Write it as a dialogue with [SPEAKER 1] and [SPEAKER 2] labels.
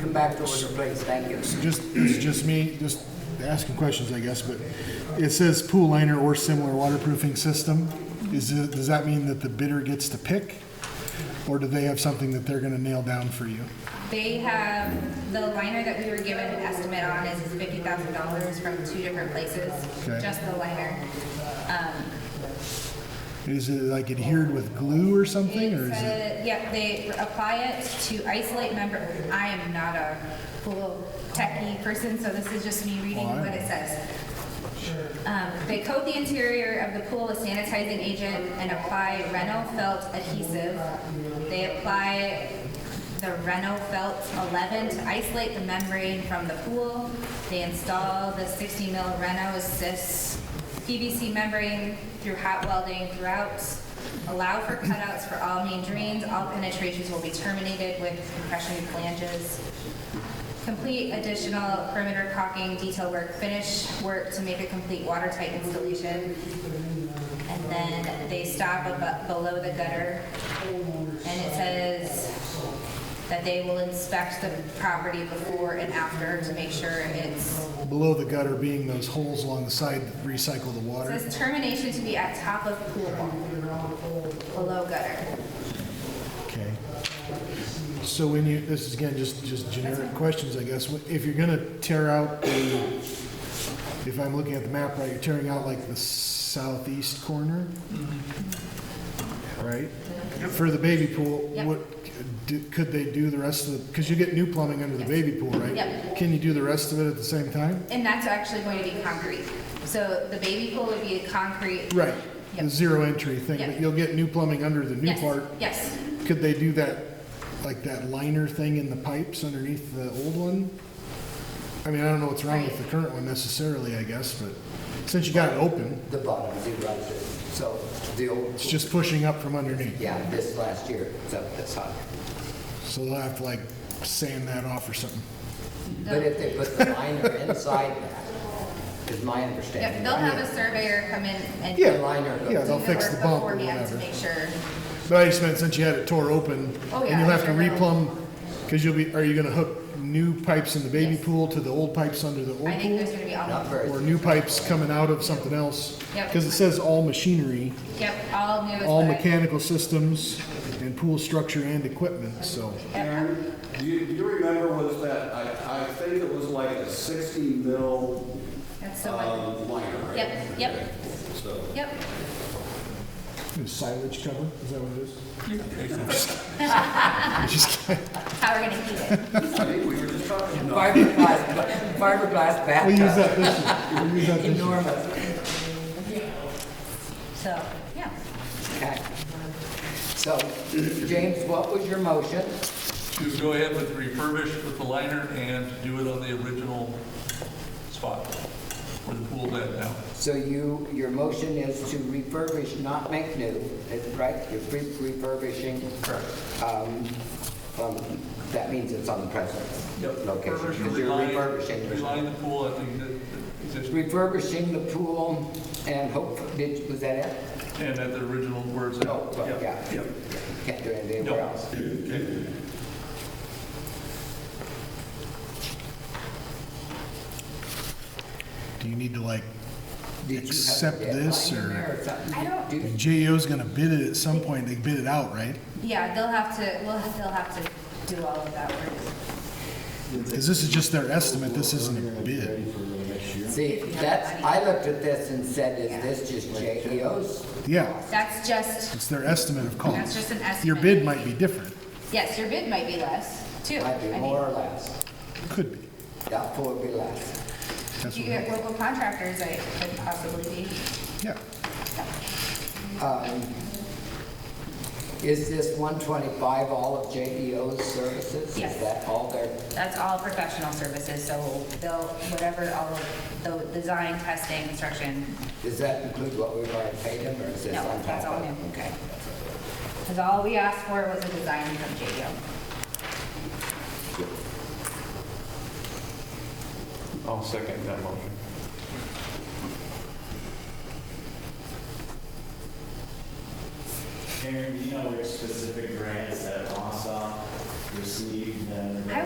[SPEAKER 1] come back to order, please, thank you.
[SPEAKER 2] Just, it's just me, just asking questions, I guess, but it says pool liner or similar waterproofing system. Is it, does that mean that the bidder gets to pick? Or do they have something that they're gonna nail down for you?
[SPEAKER 3] They have, the liner that we were given an estimate on is fifty thousand dollars from two different places,
[SPEAKER 2] Okay.
[SPEAKER 3] just the liner.
[SPEAKER 2] Is it like adhered with glue or something, or is it?
[SPEAKER 3] Uh, Yep, they apply it to isolate member, I am not a pool techie person, so this is just me reading
[SPEAKER 2] Why?
[SPEAKER 3] what it says. Um, They coat the interior of the pool with sanitizing agent and apply Reno felt adhesive. They apply the Reno felt 11 to isolate the membrane from the pool. They install the 60 mil Reno assist PVC membrane through hot welding throughout. Allow for cutouts for all main drains. All penetrations will be terminated with compression flanges. Complete additional perimeter caulking, detail work, finish work to make a complete watertight installation. And then they stop abo- below the gutter. And it says that they will inspect the property before and after to make sure it's,
[SPEAKER 2] Below the gutter being those holes along the side that recycle the
[SPEAKER 3] it
[SPEAKER 2] water?
[SPEAKER 3] says termination to be at top of pool wall, below gutter.
[SPEAKER 2] Okay. So when you, this is again, just, just generic questions, I guess. If you're gonna tear out the, if I'm looking at the map right, you're tearing out like the southeast corner? Right? For the baby pool,
[SPEAKER 3] Mm-hmm. Yep.
[SPEAKER 2] what, do- could they do the rest of the, because you get new plumbing under the baby pool, right?
[SPEAKER 3] Yep.
[SPEAKER 2] Can you do the rest of it at the same time?
[SPEAKER 3] And that's actually going to be concrete. So the baby pool would be a concrete.
[SPEAKER 2] Right, the
[SPEAKER 3] Yep.
[SPEAKER 2] zero entry thing,
[SPEAKER 3] Yep.
[SPEAKER 2] but you'll get new plumbing under the new
[SPEAKER 3] Yes,
[SPEAKER 2] part.
[SPEAKER 3] Yes,
[SPEAKER 2] Could they do that, like that liner thing in the pipes underneath the old one? I mean, I don't know what's wrong with the current one necessarily, I guess, but since you got it open,
[SPEAKER 1] The bottom, you right there. So the old,
[SPEAKER 2] it's just pushing up from underneath.
[SPEAKER 1] yeah, this last year, so that's hot.
[SPEAKER 2] So they'll have to like sand that off or something.
[SPEAKER 1] But if they put the liner inside that, is my
[SPEAKER 3] Yep,
[SPEAKER 1] understanding.
[SPEAKER 3] they'll have a surveyor come in and.
[SPEAKER 2] Yeah,
[SPEAKER 1] The liner.
[SPEAKER 2] yeah, they'll
[SPEAKER 3] do
[SPEAKER 2] fix the
[SPEAKER 3] work
[SPEAKER 2] bump or
[SPEAKER 3] beforehand To
[SPEAKER 2] whatever.
[SPEAKER 3] make sure,
[SPEAKER 2] But I just meant since you had it tore open,
[SPEAKER 3] Oh,
[SPEAKER 2] and
[SPEAKER 3] yeah,
[SPEAKER 2] you'll have to
[SPEAKER 3] sure they'll-
[SPEAKER 2] replumb, because you'll be, are you gonna hook new pipes in the baby
[SPEAKER 3] Yes.
[SPEAKER 2] pool to the old pipes under the old
[SPEAKER 3] I think there's
[SPEAKER 2] pool?
[SPEAKER 3] gonna be all,
[SPEAKER 1] Not very.
[SPEAKER 2] Or new pipes coming out of something else?
[SPEAKER 3] Yep.
[SPEAKER 2] Because it says all machinery.
[SPEAKER 3] yep, all new. is
[SPEAKER 2] all
[SPEAKER 3] what I-
[SPEAKER 2] mechanical systems and pool structure and equipment, so.
[SPEAKER 4] Aaron, do you, do you remember was that, I, I think it was like a 60 mil
[SPEAKER 3] That's the one,
[SPEAKER 4] um, liner, right?
[SPEAKER 3] Yep, yep.
[SPEAKER 4] Okay, So,
[SPEAKER 3] yep,
[SPEAKER 2] Silage cover, is that what it is? I'm just kidding.
[SPEAKER 3] how we're gonna keep it.
[SPEAKER 4] I think we were just talking about.
[SPEAKER 1] Fiberglass, fiberglass
[SPEAKER 2] We'll use
[SPEAKER 1] bathtub,
[SPEAKER 2] that this year, we'll use that this year.
[SPEAKER 1] enormous.
[SPEAKER 3] So, yeah,
[SPEAKER 1] Okay. So, James, what was your motion?
[SPEAKER 5] to go ahead with refurbish with the liner and to do it on the original spot where the pool's at now.
[SPEAKER 1] So you, your motion is to refurbish, not make new, is it right? You're re- refurbishing. Correct. Um, um, that means it's on the present location.
[SPEAKER 5] Refurbish or
[SPEAKER 1] Because you're
[SPEAKER 5] reline-
[SPEAKER 1] refurbishing.
[SPEAKER 5] Reline the pool, I think that, that exists,
[SPEAKER 1] Refurbishing the pool and hope, did, was that it?
[SPEAKER 5] and at the original words.
[SPEAKER 1] Oh, well, yeah.
[SPEAKER 5] Yep.
[SPEAKER 1] Can't do anything
[SPEAKER 5] No.
[SPEAKER 1] else.
[SPEAKER 2] Do you need to like,
[SPEAKER 1] Did you have a
[SPEAKER 2] Accept
[SPEAKER 1] deadline
[SPEAKER 2] this,
[SPEAKER 1] in
[SPEAKER 2] or-
[SPEAKER 1] there something?
[SPEAKER 3] I don't-
[SPEAKER 1] Do-
[SPEAKER 2] JEO's gonna bid it at some point, they bid it out, right?
[SPEAKER 3] yeah, they'll have to, we'll, they'll have to do all of that work.
[SPEAKER 2] Because this is just their estimate, this isn't a bid.
[SPEAKER 1] See, that's, I looked at this and said, is this just JEO's?
[SPEAKER 2] Yeah,
[SPEAKER 3] That's just,
[SPEAKER 2] it's their estimate of cost.
[SPEAKER 3] That's just an
[SPEAKER 2] Your
[SPEAKER 3] estimate.
[SPEAKER 2] bid might be different,
[SPEAKER 3] yes, your bid might be less, too.
[SPEAKER 1] Might be
[SPEAKER 3] I mean,
[SPEAKER 1] more or less.
[SPEAKER 2] could be.
[SPEAKER 1] Doubtful would be less.
[SPEAKER 2] That's
[SPEAKER 3] You
[SPEAKER 2] what,
[SPEAKER 3] get local contractors, I could possibly be.
[SPEAKER 2] yeah.
[SPEAKER 1] Um, Is this 125 all of JEO's services?
[SPEAKER 3] Yes.
[SPEAKER 1] Is that all their,
[SPEAKER 3] That's all professional services, so they'll, whatever, all of the design, testing, construction,
[SPEAKER 1] does that include what we've already paid them, or is this
[SPEAKER 3] No,
[SPEAKER 1] on top of?
[SPEAKER 3] that's all new.
[SPEAKER 1] Okay.
[SPEAKER 3] because all we asked for was a design from JDO.
[SPEAKER 6] I'll second that motion.
[SPEAKER 7] Aaron, do you know which specific grants that Wausau received? and the
[SPEAKER 3] I